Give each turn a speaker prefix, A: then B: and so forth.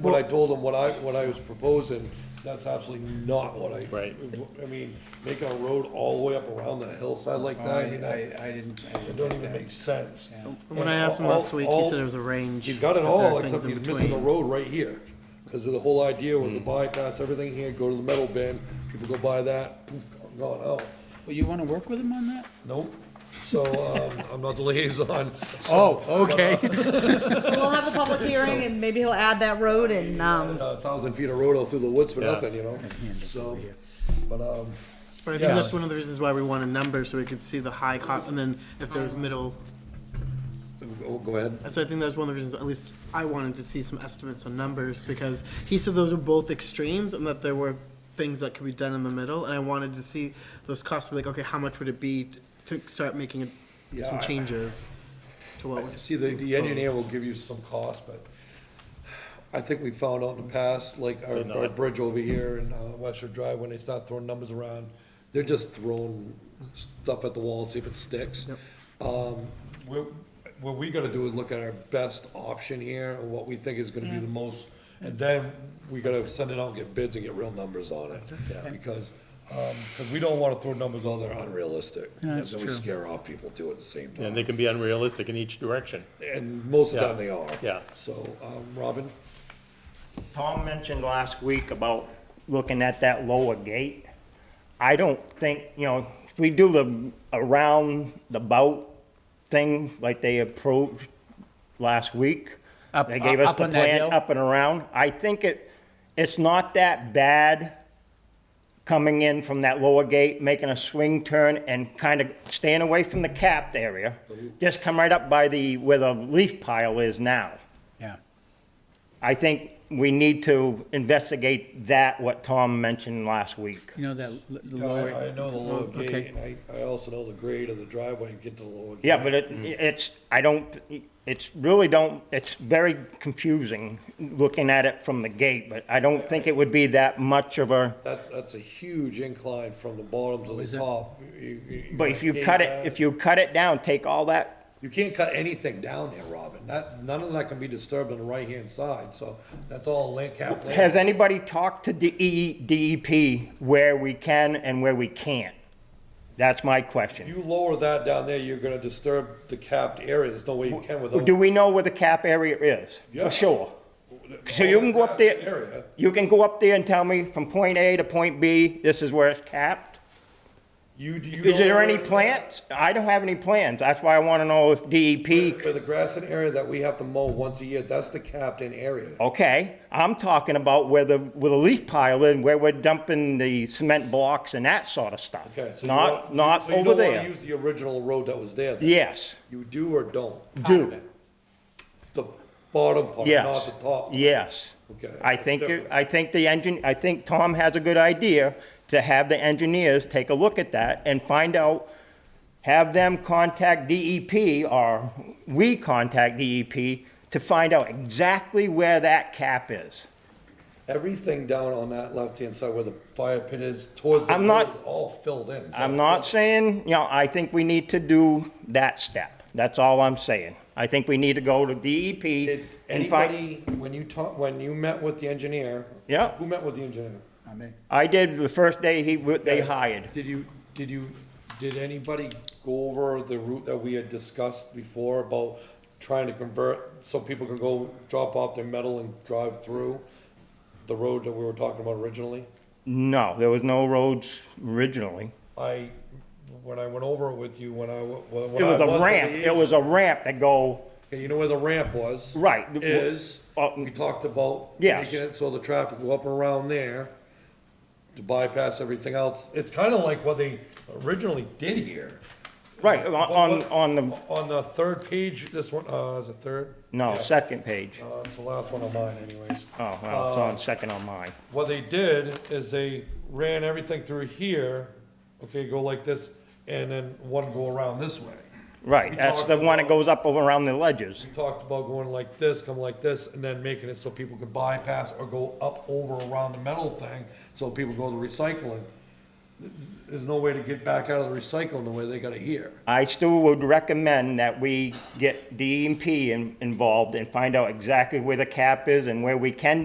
A: when I told him what I, what I was proposing, that's absolutely not what I.
B: Right.
A: I mean, making a road all the way up around the hillside like
C: I,
A: that, I mean, that,
C: I, I didn't. I
A: it
C: didn't
A: don't
C: get
A: even
C: that.
A: make sense.
D: When I asked him
A: All-
D: last week, he
A: all-
D: said it was a range.
A: He's got it
D: that there are
A: all,
D: things
A: except
D: in
A: he's missing the
D: between.
A: road right here. Cause the whole idea was to
B: Mm.
A: bypass everything here, go to the metal bin, people go by that, poof, gone out.
C: Well, you wanna work with him on that?
A: Nope. So, um, I'm not the liaison. so, uh,
C: Oh, okay.
E: We'll have the public hearing and maybe he'll add that road and, um,
A: A thousand feet of road out through the woods for
B: Yeah.
A: nothing, you know? So, but, um,
D: But I think that's one of the reasons why we want a number, so we could see the high cost, and then if there's middle,
A: go- go ahead.
D: so I think that's one of the reasons, at least I wanted to see some estimates on numbers, because he said those are both extremes, and that there were things that could be done in the middle, and I wanted to see those costs, like, okay, how much would it be to start making
A: Yeah,
D: some
A: I-
D: changes to what was.
A: See, the, the engineer
D: proposed.
A: will give you some cost, but I think we found out in the past, like our,
B: They're
A: our
B: not.
A: bridge over here in uh, Western Drive, when they start throwing numbers around, they're just throwing stuff at the wall, see if it sticks. Um, we're, what we gotta do is look at our best option here, and what we think is gonna be the most, and then we gotta send it out, and get bids and get real numbers on it. Because, um, cause we don't wanna throw numbers out that are unrealistic.
C: Yeah, that's
A: and then
C: true.
A: we scare off people too at the same time.
B: And they can be unrealistic in each direction.
A: And most of the
B: Yeah.
A: time they are.
B: Yeah.
A: So, um, Robin,
F: Tom mentioned last week about looking at that lower gate. I don't think, you know, if we do the around the bout thing like they approved last week.
C: Up- uh,
F: They gave us
C: up
F: the
C: on that
F: plan
C: hill?
F: up and around. I think it, it's not that bad coming in from that lower gate, making a swing turn and kind of staying away from the capped area. Just come right up by the, where the leaf pile is now.
C: Yeah.
F: I think we need to investigate that, what Tom mentioned last week.
C: You know that, l- the
A: I,
C: lower.
A: I know the lower
C: Oh, okay.
A: gate, and I, I also know the grade of the driveway and get to the lower gate.
F: Yeah, but it, it's, I don't, it's really don't, it's very confusing looking at it from the gate, but I don't think it would be that much of a,
A: That's, that's a huge incline from the bottom to the top. You- you-
F: but if you cut it, if you cut it down, take all that,
A: You can't cut anything down there, Robin. That, none of that can be disturbed on the right-hand side, so that's all land cap. land.
F: has anybody talked to E, DE, DEP where we can and where we can't? That's my
A: If
F: question.
A: you lower that down there, you're gonna disturb the capped area. There's no way you can without.
F: Do we know where the cap area is?
A: Yeah.
F: For sure. So you can go up there-
A: Area.
F: You can go up there and tell me from point A to point B, this is where it's capped?
A: You, do you.
F: Is
A: know
F: there any
A: where-
F: plants? I don't have any plans. That's why I want to know if E DEP,
A: For the grass and area that we have to mow once a year, that's the capped in area.
F: okay, I'm talking about where the, where the leaf pile is, where we're dumping the cement blocks and that sort of stuff.
A: Okay, so you
F: Not,
A: want-
F: not
A: so you
F: over
A: don't wanna
F: there.
A: Use the original road that was there. then?
F: Yes,
A: You do or don't?
F: do,
A: The bottom part, not
F: yes,
A: the top? part.
F: yes.
A: Okay,
F: I
A: that's
F: think, it-
A: different.
F: I think the engine, I think Tom has a good idea to have the engineers take a look at that and find out, have them contact DEP or we contact DEP to find out exactly where that cap is.
A: Everything down on that left-hand side where the fire pit is, towards the
F: I'm
A: road
F: not-
A: is all filled in. so
F: I'm
A: it's
F: not
A: filled.
F: saying, you know, I think we need to do that step. That's all I'm saying. I think we need to go to DEP
A: Did
F: and find.
A: anybody, when you talk, when you met with the engineer?
F: Yeah.
A: Who met with the engineer?
C: I mean,
F: I did the first day he, w- they hired.
A: Did you, did you, did anybody go over the route that we had discussed before about trying to convert, so people can go drop off their metal and drive through the road that we were talking about originally?
F: No, there was no roads originally.
A: I, when I went over it with you, when I, wa- when
F: It
A: I
F: was a
A: the
F: ramp, it
A: liaison-
F: was a ramp that go,
A: Okay, you know where the ramp was?
F: Right.
A: Is,
F: Uh,
A: we talked about
F: Yes.
A: making it so the traffic go up and around there to bypass everything else. It's kind of like what they originally did here.
F: right, on, on- on the,
A: On the third page, this one, uh, is it third?
F: no, second page.
A: Uh, it's the last one of mine anyways.
F: Oh, well, it's on second on mine.
A: What they did is they ran everything through here, okay, go like this, and then one go around this way.
F: Right,
A: We
F: that's
A: talked
F: the one that
A: about-
F: goes up over around the ledges.
A: We talked about going like this, come like this, and then making it so people could bypass or go up over around the metal thing, so people go to recycling. There's no way to get back out of the recycling the way they got it here.
F: I still would recommend that we get DEP in- involved and find out exactly where the cap is and where we can